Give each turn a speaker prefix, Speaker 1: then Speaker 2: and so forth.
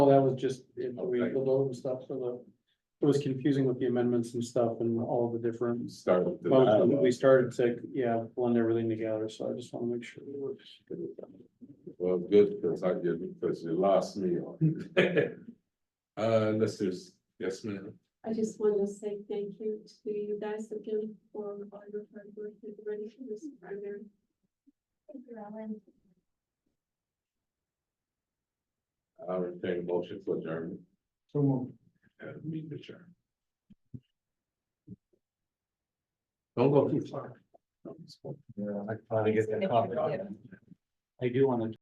Speaker 1: Well, that was just, it- we
Speaker 2: Okay.
Speaker 1: pulled over stuff, so the, it was confusing with the amendments and stuff and all the different.
Speaker 2: Start with the
Speaker 1: Well,
Speaker 2: dialogue.
Speaker 1: we started to, yeah, blend everything together, so I just wanna make sure. it works.
Speaker 2: Well, good, because I didn't, because you lost me on. Uh, let's just, yes, ma'am.
Speaker 3: I just wanted to say thank you to you guys again for all your hard work and ready for this primary. Thank you, Alan.
Speaker 2: I'll retain a motion for adjournment.
Speaker 1: So
Speaker 2: Uh, Meet the chair. Don't go too far.
Speaker 4: Yeah, I finally get that coffee.
Speaker 1: I do wanna